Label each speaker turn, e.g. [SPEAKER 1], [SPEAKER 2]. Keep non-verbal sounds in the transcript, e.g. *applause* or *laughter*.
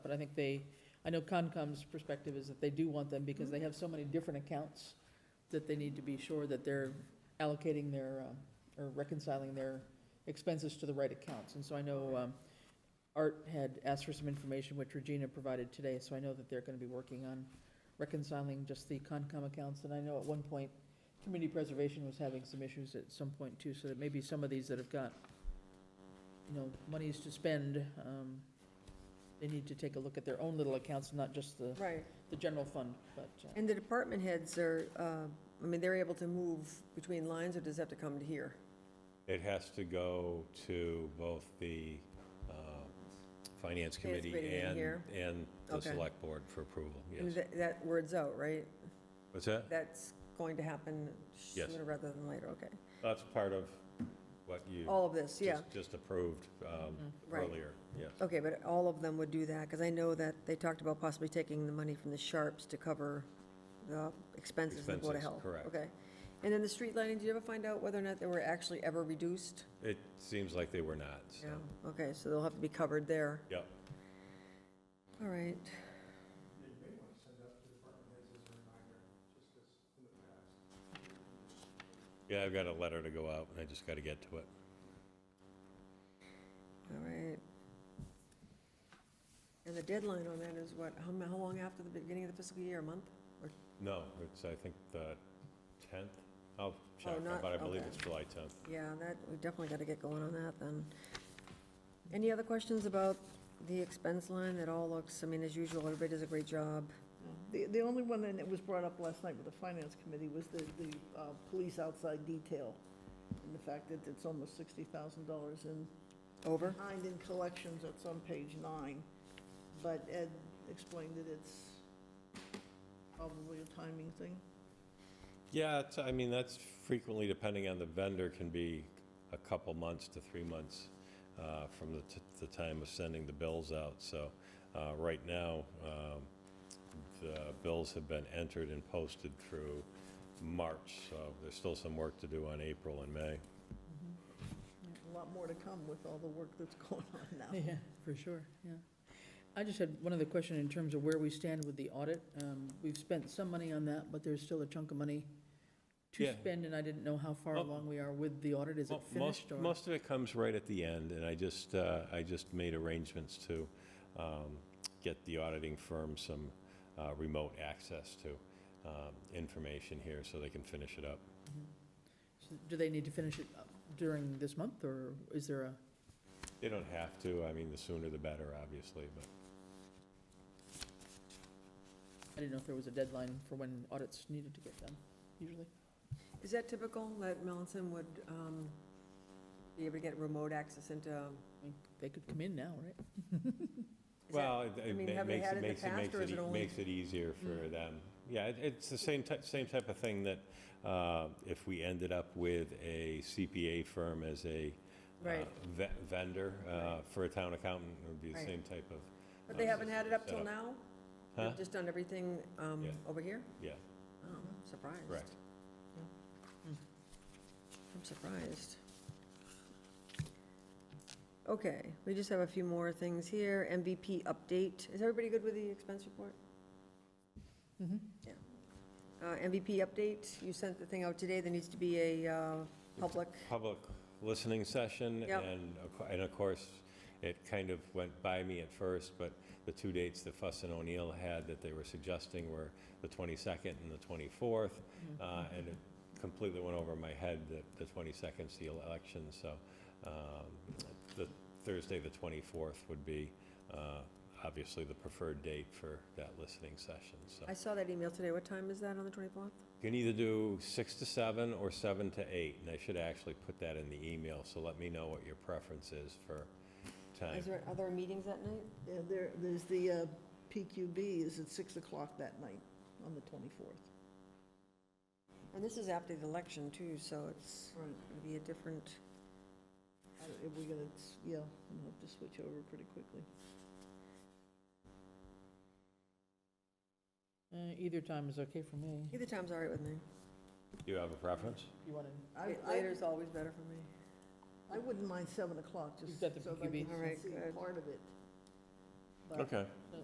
[SPEAKER 1] but I think they, I know Concom's perspective is that they do want them because they have so many different accounts that they need to be sure that they're allocating their, um, or reconciling their expenses to the right accounts. And so I know um, Art had asked for some information, which Regina provided today, so I know that they're going to be working on reconciling just the Concom accounts. And I know at one point, Community Preservation was having some issues at some point too, so that maybe some of these that have got, you know, monies to spend, um, they need to take a look at their own little accounts, not just the,
[SPEAKER 2] Right,
[SPEAKER 1] the general fund, but. uh,
[SPEAKER 2] and the department heads are, uh, I mean, they're able to move between lines, or does it have to come to here?
[SPEAKER 3] It has to go to both the uh, Finance Committee
[SPEAKER 2] committee and
[SPEAKER 3] and,
[SPEAKER 2] here?
[SPEAKER 3] and the
[SPEAKER 2] Okay.
[SPEAKER 3] Select Board for approval,
[SPEAKER 2] I mean,
[SPEAKER 3] yes.
[SPEAKER 2] that- That word's out, right?
[SPEAKER 3] What's that?
[SPEAKER 2] That's going to happen
[SPEAKER 3] Yes.
[SPEAKER 2] sooner rather than later, okay.
[SPEAKER 3] That's part of what you
[SPEAKER 2] All of this, Oh, yeah, Mm-hmm.
[SPEAKER 3] just- just approved um,
[SPEAKER 1] Mhm.
[SPEAKER 2] Right.
[SPEAKER 3] earlier, yes.
[SPEAKER 2] okay, but all of them would do that, because I know that they talked about possibly taking the money from the Sharps to cover the expenses of the Board of
[SPEAKER 3] Expenses,
[SPEAKER 2] Health.
[SPEAKER 3] correct.
[SPEAKER 2] Okay, and then the street lighting, did you ever find out whether or not they were actually ever reduced?
[SPEAKER 3] It seems like they were not, so.
[SPEAKER 2] Yeah, okay, so they'll have to be covered there,
[SPEAKER 3] Yep.
[SPEAKER 2] all right.
[SPEAKER 3] Yeah, I've got a letter to go out, and I just got to get to it.
[SPEAKER 2] All right. And the deadline on that is what, how, mu- how long after the beginning of the fiscal year, a month?
[SPEAKER 3] No, it's, I think, the 10th. I'll check,
[SPEAKER 2] Oh, not-
[SPEAKER 3] but I believe
[SPEAKER 2] okay.
[SPEAKER 3] it's July 10th.
[SPEAKER 2] Yeah, that, we definitely gotta get going on that then. Any other questions about the expense line? It all looks, I mean, as usual, everybody does a great job.
[SPEAKER 4] The, the only one that was brought up last night with the finance committee was the, the uh, police outside detail, and the fact that it's almost $60,000 in,
[SPEAKER 2] Over?
[SPEAKER 4] behind in collections, that's on page nine, but Ed explained that it's probably a timing thing.
[SPEAKER 3] Yeah, it's, I mean, that's frequently, depending on the vendor, can be a couple months to three months uh, from the, t- the time of sending the bills out. So, uh, right now, um, the bills have been entered and posted through March, so there's still some work to do on April and May.
[SPEAKER 4] A lot more to come with all the work that's *laughs* going on now.
[SPEAKER 1] Yeah, for sure, yeah. I just had one other question in terms of where we stand with the audit. Um, We've spent some money on that, but there's still a chunk of money to
[SPEAKER 3] Yeah.
[SPEAKER 1] spend, and I didn't know how far
[SPEAKER 3] Oh.
[SPEAKER 1] along we are with the audit. Is it
[SPEAKER 3] Mo- most-
[SPEAKER 1] finished or?
[SPEAKER 3] Most of it comes right at the end, and I just, uh, I just made arrangements to um, get the auditing firm some uh, remote access to um, information here so they can finish it up.
[SPEAKER 1] Mm-hmm. So Do they need to finish it up during this month, or is there a?
[SPEAKER 3] They don't have to, I mean, the sooner the better, obviously, but
[SPEAKER 1] I didn't know if there was a deadline for when audits needed to get done, usually.
[SPEAKER 2] Is that typical, that Melanson would, um, be able to get remote access into? is
[SPEAKER 1] I mean, They could come in now, right?
[SPEAKER 2] that-
[SPEAKER 3] Well, it-
[SPEAKER 2] I
[SPEAKER 3] it
[SPEAKER 2] mean,
[SPEAKER 3] ma-
[SPEAKER 2] have they
[SPEAKER 3] makes
[SPEAKER 2] had it
[SPEAKER 3] it,
[SPEAKER 2] in the
[SPEAKER 3] makes it,
[SPEAKER 2] past,
[SPEAKER 3] makes
[SPEAKER 2] or
[SPEAKER 3] it,
[SPEAKER 2] is it
[SPEAKER 3] e-
[SPEAKER 2] only-
[SPEAKER 3] makes it easier for
[SPEAKER 1] Mm.
[SPEAKER 3] them. Yeah, it- it's the same type, same type of thing that uh, if we ended up with a CPA firm as a uh,
[SPEAKER 2] Right.
[SPEAKER 3] ve- vendor uh, for a town accountant, it would be the
[SPEAKER 2] Right.
[SPEAKER 3] same type of,
[SPEAKER 2] But they haven't had it up till now? They've
[SPEAKER 3] Huh?
[SPEAKER 2] Just done everything, um,
[SPEAKER 3] Yeah.
[SPEAKER 2] over here?
[SPEAKER 3] yeah,
[SPEAKER 2] Oh, I'm surprised. Hmm.
[SPEAKER 3] correct.
[SPEAKER 2] I'm surprised. Okay, we just have a few more things here. MVP update. Is everybody good with the expense report?
[SPEAKER 1] Mm-hmm.
[SPEAKER 2] Uh, MVP update, you sent the thing out today. There needs to be a uh, public,
[SPEAKER 3] Public listening session,
[SPEAKER 2] Yep.
[SPEAKER 3] and, of cou- and of course, it kind of went by me at first, but the two dates that Fuss and O'Neill had that they were suggesting were the 22nd and the 24th, Uh, and it completely went over my head that the 22nd's the election, so um, the Thursday, the 24th would be uh, obviously the preferred date for that listening session, so.
[SPEAKER 2] I saw that email today. What time is that on the 24th?
[SPEAKER 3] You can either do 6 to 7 or 7 to 8, and I should actually put that in the email, so let me know what your preference is for time.
[SPEAKER 2] Is there, are there meetings that night?
[SPEAKER 4] Yeah, there, there's the uh, PQB is at 6 o'clock that night on the 24th.
[SPEAKER 2] And this is after the election too, so it's
[SPEAKER 4] Right.
[SPEAKER 2] going to be a different,
[SPEAKER 4] I- Uh, If we're gonna, s- yeah, I'm gonna have to switch over pretty quickly.
[SPEAKER 1] Uh, either time is okay for me.
[SPEAKER 2] either time's all right with me.
[SPEAKER 3] Do you have a preference?
[SPEAKER 1] You want to?
[SPEAKER 4] I,
[SPEAKER 2] Late-
[SPEAKER 4] I,
[SPEAKER 2] Later's always better for me.
[SPEAKER 4] I wouldn't mind seven o'clock, just
[SPEAKER 1] You've
[SPEAKER 4] so
[SPEAKER 1] got the
[SPEAKER 4] that I
[SPEAKER 1] PQB.
[SPEAKER 4] can
[SPEAKER 2] All right,
[SPEAKER 4] see
[SPEAKER 2] good.
[SPEAKER 4] part of it. But
[SPEAKER 3] Okay.
[SPEAKER 1] No,